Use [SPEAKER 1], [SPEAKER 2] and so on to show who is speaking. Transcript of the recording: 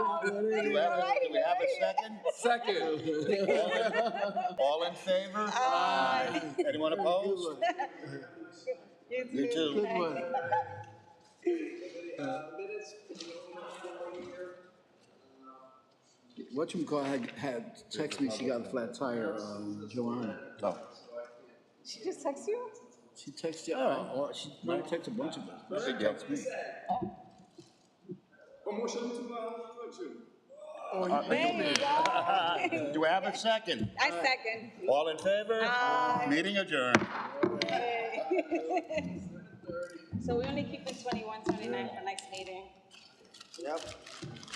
[SPEAKER 1] Do we have a, do we have a second?
[SPEAKER 2] Second.
[SPEAKER 1] All in favor? Aye. Anyone opposed? You too.
[SPEAKER 3] Good one. Whatchamacallit had, had text me, she got a flat tire, um, Joanna.
[SPEAKER 1] No.
[SPEAKER 4] She just texted you?
[SPEAKER 3] She texted, oh, oh, she might text a bunch of us. but She
[SPEAKER 1] Big deal.
[SPEAKER 3] texted me.
[SPEAKER 4] There you go. I
[SPEAKER 1] Uh, Do we have a second?
[SPEAKER 4] second.
[SPEAKER 1] All in favor?
[SPEAKER 4] Aye.
[SPEAKER 1] Meeting adjourned.
[SPEAKER 4] Yay. So we only keep the 21, 29 for next meeting.
[SPEAKER 3] Yep.